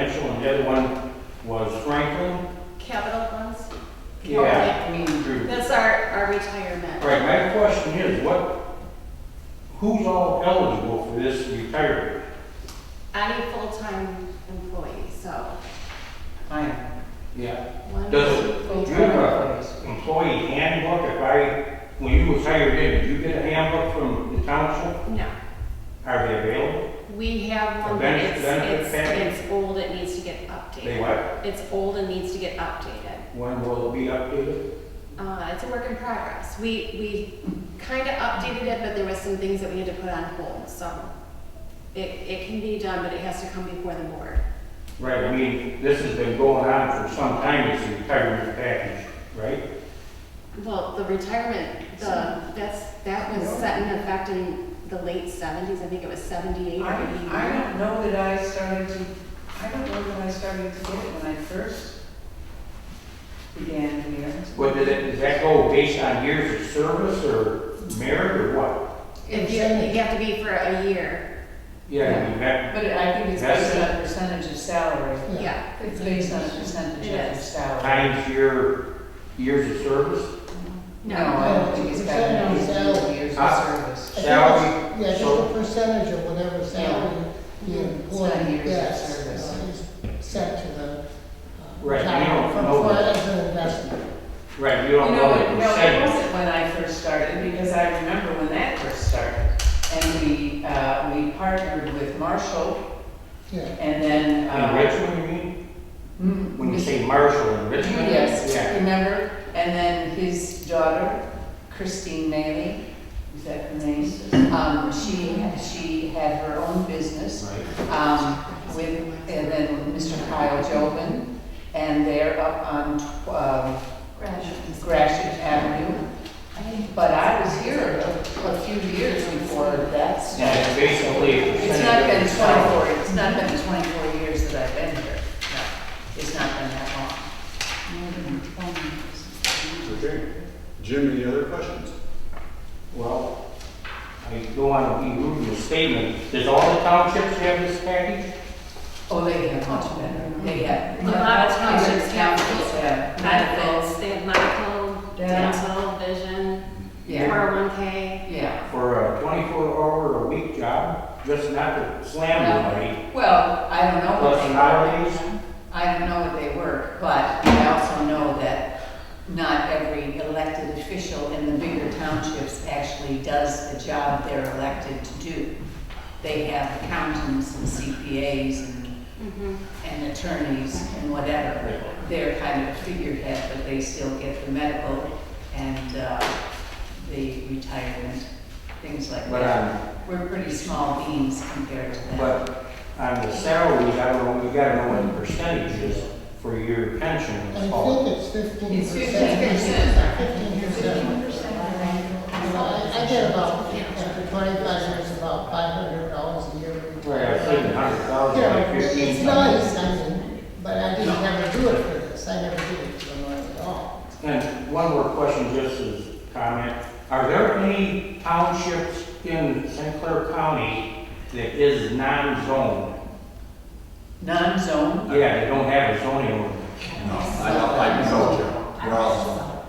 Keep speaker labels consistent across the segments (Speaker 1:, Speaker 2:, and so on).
Speaker 1: the other one was Franklin.
Speaker 2: Capital funds?
Speaker 1: Yeah.
Speaker 3: Community.
Speaker 2: That's our, our retirement.
Speaker 1: Right, my question is, what, who's all eligible for this retirement?
Speaker 2: Any full-time employee, so.
Speaker 3: I am.
Speaker 1: Yeah.
Speaker 2: one,
Speaker 1: Does
Speaker 2: two,
Speaker 1: it-
Speaker 2: three,
Speaker 1: do you
Speaker 3: Full-time
Speaker 1: have
Speaker 3: employees.
Speaker 1: an employee handbook if I, when you was hired in, did you get a handbook from the council?
Speaker 2: No,
Speaker 1: Are they available?
Speaker 2: we have one,
Speaker 1: A
Speaker 2: but
Speaker 1: benefit-
Speaker 2: it's,
Speaker 1: benefit
Speaker 2: it's,
Speaker 1: package?
Speaker 2: it's old, it needs to get
Speaker 1: They
Speaker 2: updated.
Speaker 1: what?
Speaker 2: It's old and needs to get updated.
Speaker 1: When will it be updated?
Speaker 2: Uh, it's a work in progress. We, we kind of updated it, but there was some things that we had to put on hold, so. It, it can be done, but it has to come before the board.
Speaker 1: Right, I mean, this has been going on for some time, this retirement package, right?
Speaker 2: Well, the retirement, the, that's, that was set in effect in the late seventies, I think it was seventy-eight or
Speaker 3: I, I
Speaker 2: eighty-nine.
Speaker 3: don't know that I started to, I don't know that I started to get it when I first began here.
Speaker 1: What, does that, does that go based on years of service or merit or what?
Speaker 2: If you, you have to be for a year,
Speaker 1: Yeah, I mean, that,
Speaker 3: But I think it's based on a percentage of salary.
Speaker 2: yeah.
Speaker 3: It's based on a percentage
Speaker 2: It
Speaker 3: of your
Speaker 2: is.
Speaker 3: salary.
Speaker 1: times your years of service,
Speaker 3: No, I don't think it's got
Speaker 4: Percentage of
Speaker 3: to be
Speaker 4: salary.
Speaker 3: years of
Speaker 1: Ah.
Speaker 3: service.
Speaker 1: salary.
Speaker 4: Yeah, just
Speaker 1: so-
Speaker 4: a percentage of whatever salary the
Speaker 3: It's not
Speaker 4: employee
Speaker 3: years of
Speaker 4: gets
Speaker 3: service.
Speaker 4: uh, is set to the. uh,
Speaker 1: Right, you
Speaker 4: retirement
Speaker 1: don't
Speaker 4: fund
Speaker 1: know
Speaker 4: for-
Speaker 1: that.
Speaker 4: As an investment.
Speaker 1: Right, you
Speaker 3: You
Speaker 1: don't
Speaker 3: know,
Speaker 1: know the
Speaker 3: no, it
Speaker 1: percentage.
Speaker 3: wasn't when I first started, because I remember when that first started. And we, uh, we partnered with Marshall,
Speaker 4: Yeah,
Speaker 3: and then,
Speaker 1: In
Speaker 3: uh.
Speaker 1: Richmond, you mean?
Speaker 3: mm,
Speaker 1: When you say Marshall in Richmond?
Speaker 3: Yes,
Speaker 1: Yeah.
Speaker 3: remember? And then his daughter, Christine Maley, is that her name? Um, she, she had her own business,
Speaker 1: Right.
Speaker 3: um, with, and then Mr. Kyle Jobin, and they're up on, um, Gratiot Avenue. But I was here a a few years before that
Speaker 1: And
Speaker 3: started.
Speaker 1: it's basically a
Speaker 3: It's not
Speaker 1: percentage
Speaker 3: been
Speaker 1: of the salary.
Speaker 3: twenty-four, it's not been twenty-four years that I've been here. No, It's not been that long.
Speaker 5: Okay. Jim, any other questions?
Speaker 1: Well, I don't want to be rude in the statement. Does all the townships have this package?
Speaker 3: Oh, they get much better. They get.
Speaker 2: A lot of townships have
Speaker 3: Yeah.
Speaker 2: Benefits, they have medical,
Speaker 3: Yeah.
Speaker 2: dental, vision,
Speaker 3: Yeah.
Speaker 2: 401K.
Speaker 3: Yeah.
Speaker 1: For a twenty-four hour a week job, just not to slam anybody,
Speaker 3: Well, I don't know what
Speaker 1: plus
Speaker 3: they
Speaker 1: holidays?
Speaker 3: I don't know what they were, but I also know that not every elected official in the bigger townships actually does the job they're elected to do. They have accountants and CPAs and,
Speaker 2: Mhm.
Speaker 3: and attorneys and whatever. They're kind of figurehead, but they still get the medical and, uh, the retirement, things like
Speaker 1: But um,
Speaker 3: that.
Speaker 1: on,
Speaker 3: We're pretty small beans compared to them.
Speaker 1: but on the salaries, I don't know, you gotta know what the percentage is for your pension. Oh,
Speaker 4: I
Speaker 1: and all.
Speaker 4: think it's fifteen
Speaker 3: It's
Speaker 4: percent.
Speaker 3: 15%.
Speaker 4: Fifteen percent. Uh, I I get about, after twenty-five years, about five hundred dollars a year.
Speaker 1: Right, I think a hundred thousand,
Speaker 4: Yeah,
Speaker 1: like
Speaker 4: it's
Speaker 1: fifteen
Speaker 4: nice,
Speaker 1: thousand.
Speaker 4: I mean, but I didn't ever do it for this, I never did it for mine at all.
Speaker 1: And one more question, just as a comment, are there any townships in St. Clair County that is non-zoned?
Speaker 3: Non-zone
Speaker 1: Yeah, they don't have a zoning ordinance.
Speaker 5: No, I don't like no, we're all.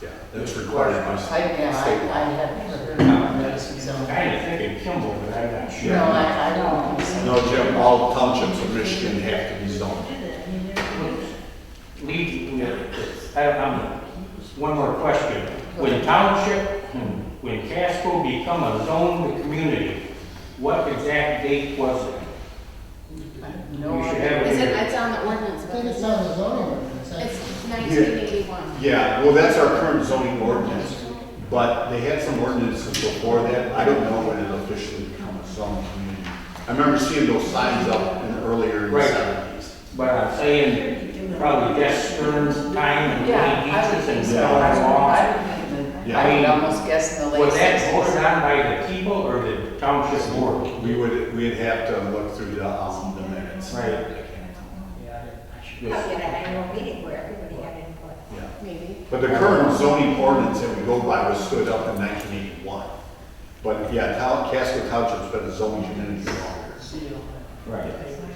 Speaker 5: Yeah, that's required by
Speaker 3: I, yeah, I, I haven't heard of those, so.
Speaker 1: I'm kinda thinking Kimball, but I'm not sure.
Speaker 3: No, I, I don't. think so.
Speaker 5: No, Jim, all townships of Michigan have to be zoned.
Speaker 1: Lead, I don't, I'm, one more question. When township, hmm, when Casco become a zoned community, what exact date was it?
Speaker 3: No,
Speaker 1: You should
Speaker 3: idea.
Speaker 1: have
Speaker 2: Is it,
Speaker 1: here.
Speaker 2: it's on the ordinance
Speaker 4: I
Speaker 2: book.
Speaker 4: think it's on the zoning ordinance, I
Speaker 2: It's 1981.
Speaker 5: Yeah, well, that's our current zoning ordinance, but they had some ordinances before that. I don't know when it officially became a zoned community. I remember seeing those signs up in the earlier in the
Speaker 1: Right.
Speaker 5: seventies.
Speaker 1: But I'm saying probably Jeff Stearns time and
Speaker 3: Yeah,
Speaker 1: Lee
Speaker 3: I would think
Speaker 1: Beaches and
Speaker 3: so.
Speaker 1: all
Speaker 3: I
Speaker 1: that
Speaker 3: would-
Speaker 1: law.
Speaker 3: I would think that-
Speaker 5: Yeah.
Speaker 3: I would almost guess in the late
Speaker 1: Was that voted
Speaker 3: sixties.
Speaker 1: on by the people or the township board?
Speaker 5: We would, we'd have to look through the, um, the minutes.
Speaker 1: Right.
Speaker 6: Probably
Speaker 1: Yes.
Speaker 6: at an annual meeting where everybody had input.
Speaker 5: Yeah.
Speaker 2: Maybe.
Speaker 5: But the current zoning ordinance that we go by was stood up in nineteen eighty-one. But yeah, Town, Casco Township's been a zoning community for years.
Speaker 1: Right.